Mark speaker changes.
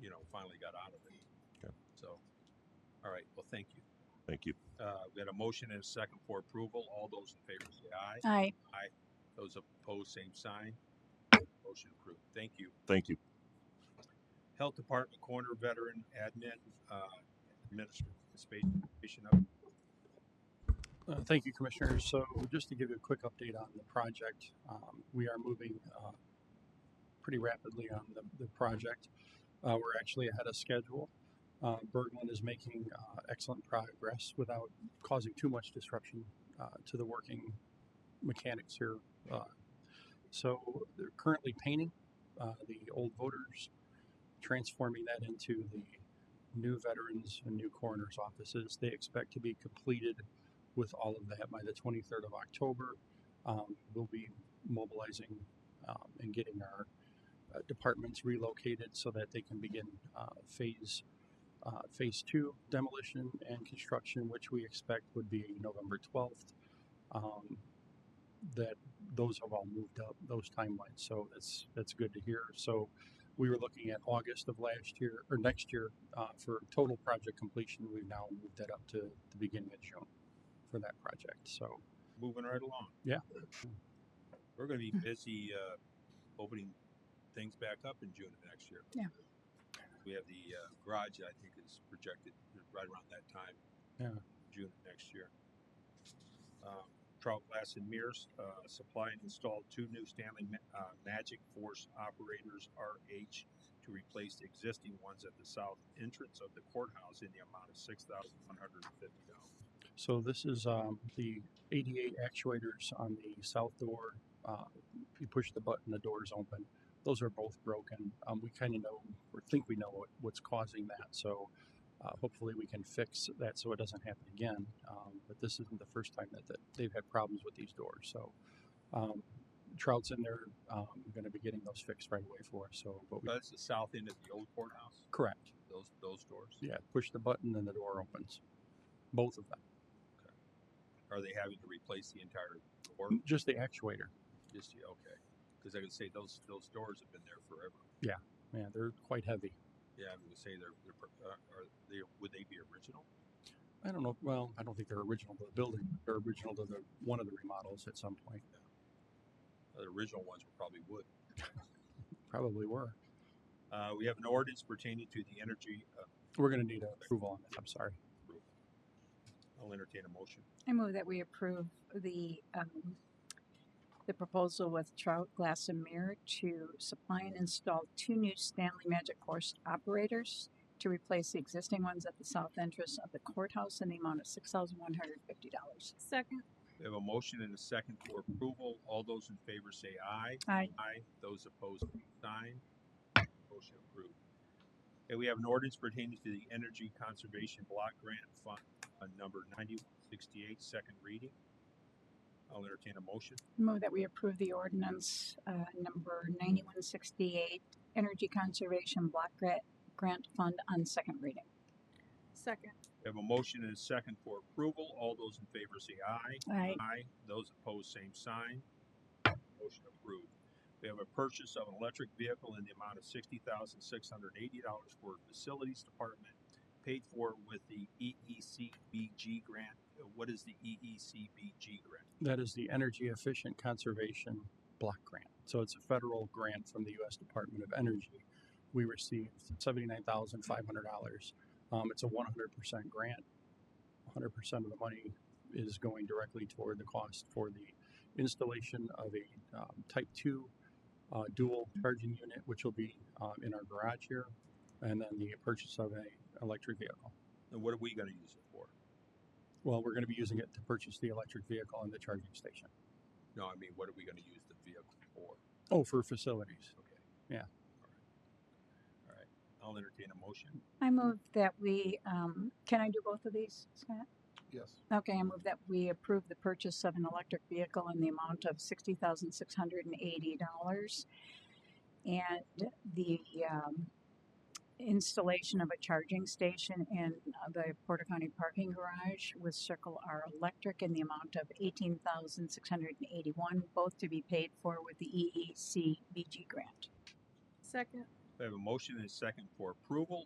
Speaker 1: you know, finally got out of it.
Speaker 2: Okay.
Speaker 1: So, all right, well, thank you.
Speaker 2: Thank you.
Speaker 1: Uh, we had a motion and a second for approval. All those in favor say aye.
Speaker 3: Aye.
Speaker 1: Those opposed, same sign. Motion approved. Thank you.
Speaker 2: Thank you.
Speaker 1: Health Department Corner Veteran Admin, uh, Administration of,
Speaker 4: Uh, Thank you, Commissioners. So just to give you a quick update on the project, um, we are moving uh, pretty rapidly on the, the project. Uh, We're actually ahead of schedule. Uh, Berglund is making uh, excellent progress without causing too much disruption uh, to the working mechanics here. Uh, So they're currently painting uh, the old voters, transforming that into the new veterans and new coroner's offices. They expect to be completed with all of that by the 23rd of October. Um, we'll be mobilizing um, and getting our uh, departments relocated so that they can begin uh, phase uh, phase two demolition and construction, which we expect would be November 12th. Um, that those have all moved up those timelines, so that's that's good to hear. So we were looking at August of last year or next year uh, for total project completion. We've now moved that up to the beginning of June for that project. So
Speaker 1: moving right along.
Speaker 4: Yeah. Hmm.
Speaker 1: We're gonna be busy, uh, opening things back up in June of next year.
Speaker 3: Yeah.
Speaker 1: We have the, uh, garage, that I think is projected right around that time.
Speaker 4: Yeah.
Speaker 1: June of next year. Um, Trout Glass and Mears, uh, supply and install two new Stanley, Ma- uh, Magic Force Operators RH to replace the existing ones at the south entrance of the courthouse in the amount of six thousand one hundred and fifty dollars.
Speaker 4: so this is um, the 88 actuators on the south door. Uh, if you push the button, the doors open. Those are both broken. Um, we kind of know or think we know what, what's causing that. So uh, hopefully we can fix that so it doesn't happen again. Um, but this isn't the first time that, that they've had problems with these doors. So um, Trout's in there. Um, going to be getting those fixed right away for us. So, but we,
Speaker 1: That's the south end of the old courthouse,
Speaker 4: correct.
Speaker 1: those, those doors.
Speaker 4: Yeah, push the button and the door opens. Both of them.
Speaker 1: Are they having to replace the entire door?
Speaker 4: Mm, Just the actuator.
Speaker 1: Just, yeah, okay. Cause I could say those, those doors have been there forever.
Speaker 4: Man, they're quite heavy.
Speaker 1: Yeah, I'm gonna say they're, they're, pro- uh, are they, would they be original?
Speaker 4: I don't know. Well, I don't think they're original to the building. but They're original to the one of the remodels at some point.
Speaker 1: The original ones were probably wood.
Speaker 4: Probably were.
Speaker 1: Uh, we have an ordinance pertaining to the energy, uh,
Speaker 4: We're going to need approval on that. I'm sorry.
Speaker 1: I'll entertain a motion.
Speaker 3: I move that we approve the, um, the proposal with Trout Glass and Mirror to supply and install two new Stanley Magic Horse operators to replace the existing ones at the south entrance of the courthouse in the amount of six thousand one hundred fifty dollars.
Speaker 5: Second,
Speaker 1: We have a motion and a second for approval. All those in favor say aye.
Speaker 3: Aye.
Speaker 1: Aye. Those opposed, same sign. Motion approved. Okay, we have an ordinance pertaining to the Energy Conservation Block Grant Fund, uh, number ninety-one sixty-eight, second reading. I'll entertain a motion.
Speaker 3: Move that we approve the ordinance, uh, number ninety-one sixty-eight, Energy Conservation Block Grant, Grant Fund on second reading.
Speaker 5: second,
Speaker 1: We have a motion and a second for approval. All those in favor say aye.
Speaker 3: Aye.
Speaker 1: Aye. Those opposed, same sign. Motion approved. We have a purchase of an electric vehicle in the amount of sixty thousand six hundred eighty dollars for facilities department, paid for with the E EECBG grant. Uh, What is the EECBG grant?
Speaker 4: That is the Energy Efficient Conservation Block Grant. So it's a federal grant from the U.S. Department of Energy. We received seventy-nine thousand five hundred dollars. Um, it's a one hundred percent grant. One hundred percent of the money is going directly toward the cost for the installation of a um, Type Two uh, dual charging unit, which will be um, in our garage here, and then the purchase of a electric vehicle.
Speaker 1: And what are we gonna use it for?
Speaker 4: Well, we're going to be using it to purchase the electric vehicle and the charging station.
Speaker 1: No, I mean, what are we gonna use the vehicle for?
Speaker 4: Oh, for facilities.
Speaker 1: Okay.
Speaker 4: Yeah.
Speaker 1: All right, I'll entertain a motion.
Speaker 3: I move that we, um, can I do both of these, Scott?
Speaker 4: Yes.
Speaker 3: Okay, I move that we approve the purchase of an electric vehicle in the amount of sixty thousand six hundred and eighty dollars. And the um, installation of a charging station in uh, the Porter County parking garage with Circle R Electric in the amount of eighteen thousand six hundred and E eighty-one, both to be paid for with the EEC BG grant.
Speaker 5: second,
Speaker 1: We have a motion and a second for approval